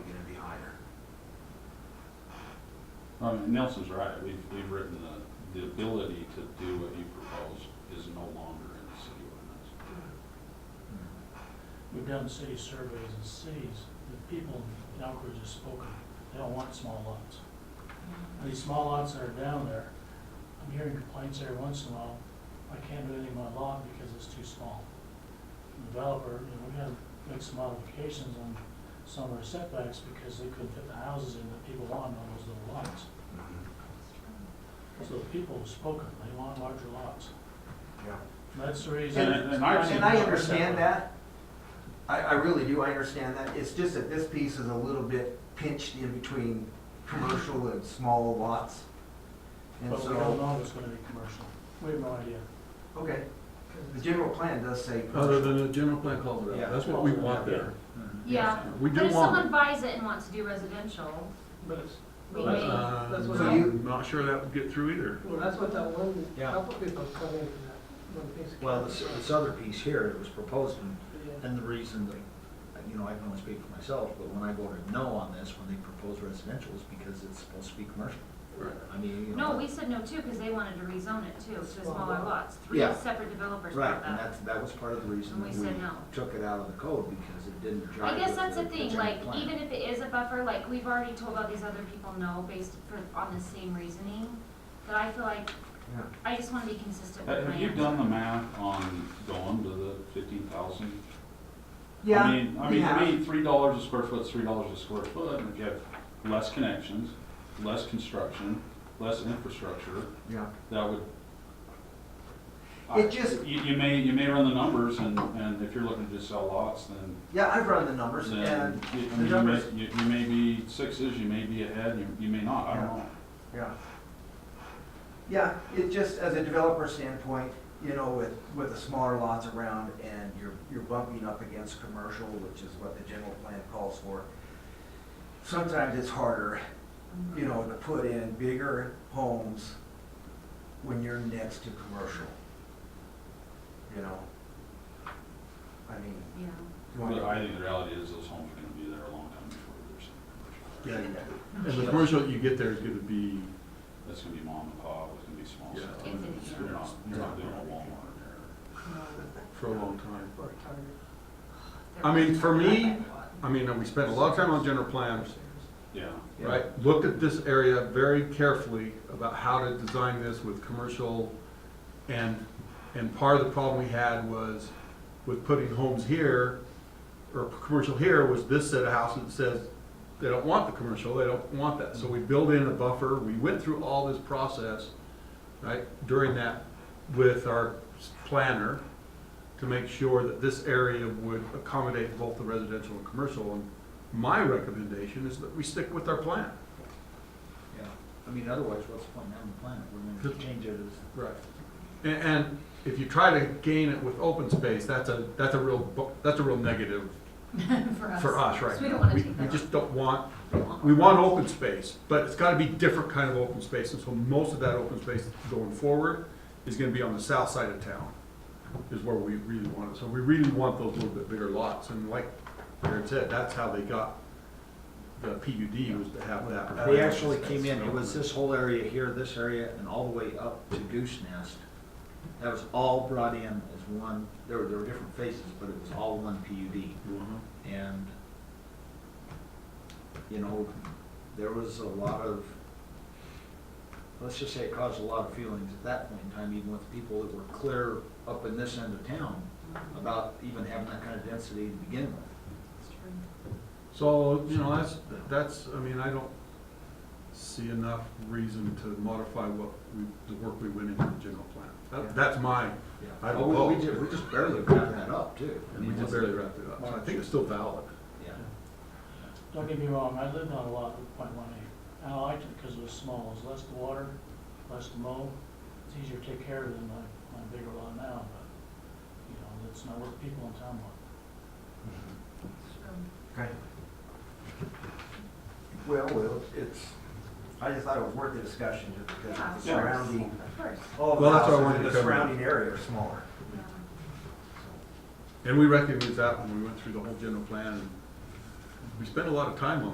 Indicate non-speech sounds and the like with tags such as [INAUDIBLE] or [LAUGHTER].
Well, Nelson's right, we've, we've written the, the ability to do what you propose is no longer in the city ordinance. We've done city surveys in cities, the people in Elkridge have spoken, they don't want small lots. And These small lots that are down there, I'm hearing complaints every once in a while, I can't do anything on my lot because it's too small. The Developer, you know, we had to make some modifications on some of our setbacks because they couldn't fit the houses in that people wanted on those little lots. Mm-hmm. So the people have spoken, they want larger lots. Yeah. And That's the reason. And- and I've seen And I understand that. I, I really do, I understand that. It's just that this piece is a little bit pinched in between commercial and small lots. And But we don't so, know if it's gonna be commercial. We have no idea. okay, the general plan does say Other commercial. than the general plan calls it Yeah. out, that's what we want there. Yeah, We but do if want someone it. buys it and wants to do residential, But it's, we Well, may. that's Uh, That's what I- I'm not sure that would get through either. well, that's what that one, Yeah. couple people come in, that one piece. of- Well, this, this other piece here, it was proposed, and, Yeah. and the reason that, you know, I can only speak for myself, but when I voted no on this, when they proposed residential, is because it's supposed to be commercial. I mean, you know. No, we said no too, because they wanted to rezone it too, to Small smaller lot. lots. Three Yeah. separate developers Right, brought and that. that's, that was part of the reason And we that said no. we took it out of the code, because it didn't I jive guess with that's the general thing, like, plan. even if it is a buffer, like, we've already told all these other people no based for, on the same reasoning, that I feel like, Yeah. I just wanna be consistent Have with my have you answer. Uh, done the math on going to the fifteen thousand? I Yeah, mean, I we mean, to have. me, three dollars a square foot, is three dollars a square foot, and if you have less connections, less construction, less infrastructure, Yeah. that would. It I- just- You, you may, you may run the numbers, and, and if you're looking to just sell lots, then Yeah, I've run the numbers then and, you- I the mean, you may, numbers- you you may be sixes, you may be ahead, you, you may not, I don't Yeah. know. yeah. Yeah, it just, as a developer standpoint, you know, with, with the smaller lots around and you're, you're bumping up against commercial, which is what the general plan calls for. Sometimes it's harder Mm-hmm, you know, to put in bigger homes when you're next to commercial. You know? I mean, Yeah, you want But I to. think the reality is those homes are gonna be there a long time before there's some Yeah, commercial. yeah. And the commercial that you get there is gonna be, That's gonna be mom and pop, it's gonna be small Yeah. stuff. It's- You're not, you're not doing a Walmart no. for a long time. Or a target. I mean, for me, [LAUGHS] Lot. I mean, we spent a lot of time on general plans, there. Yeah. Yeah. right? Looked at this area very carefully about how to design this with commercial. And, and part of the problem we had was with putting homes here, or commercial here, was this set of houses that says they don't want the commercial, they don't want that. So we build in a buffer, we went through all this process, right, during that with our planner to make sure that this area would accommodate both the residential and commercial. And my recommendation is that we stick with our plan. Yeah, I mean, otherwise, what's the point in having the plan, if we're gonna change it as Right. And, and if you try to gain it with open space, that's a, that's a real, bu- that's a real negative for us right So we don't now. wanna We, take we that. just don't want, we want open space, but it's gotta be different kind of open space. And so most of that open space going forward is gonna be on the south side of town, is where we really want it. So we really want those little bit bigger lots. And like Aaron said, that's how they got the PUD was to have that. They actually came in, it was this whole area here, this area, and all the way up to Goose Nest. That was all brought in as one, there were, there were different faces, but it was all one PUD. Mhm. And, you know, there was a lot of, let's just say it caused a lot of feelings at that point in time, even with people that were clear up in this end of town, about even having that kind of density to begin with. It's true. So, you know, that's, that's, I mean, I don't see enough reason to modify what we, the work we went into the general plan. That, that's my, I don't Well, Oh, we- know. We just, we just barely wrapped that up, too. I and we mean, just it's- barely wrapped it up, so I think it's still valid. Yeah. Don't get me wrong, I lived on a lot with point one eight. And I liked it because it was small, it was less to water, less to mow. It's easier to take care of than my, my bigger lot now, but, you know, that's not what the people in town want. Okay. Well, well, it's, I just thought it was worth the discussion just because Yeah, of of the surrounding, Of course, all Well, the that's what I houses wanted in to the cover. surrounding area are smaller. yeah. And we recognized that when we went through the whole general plan, and we spent a lot of time on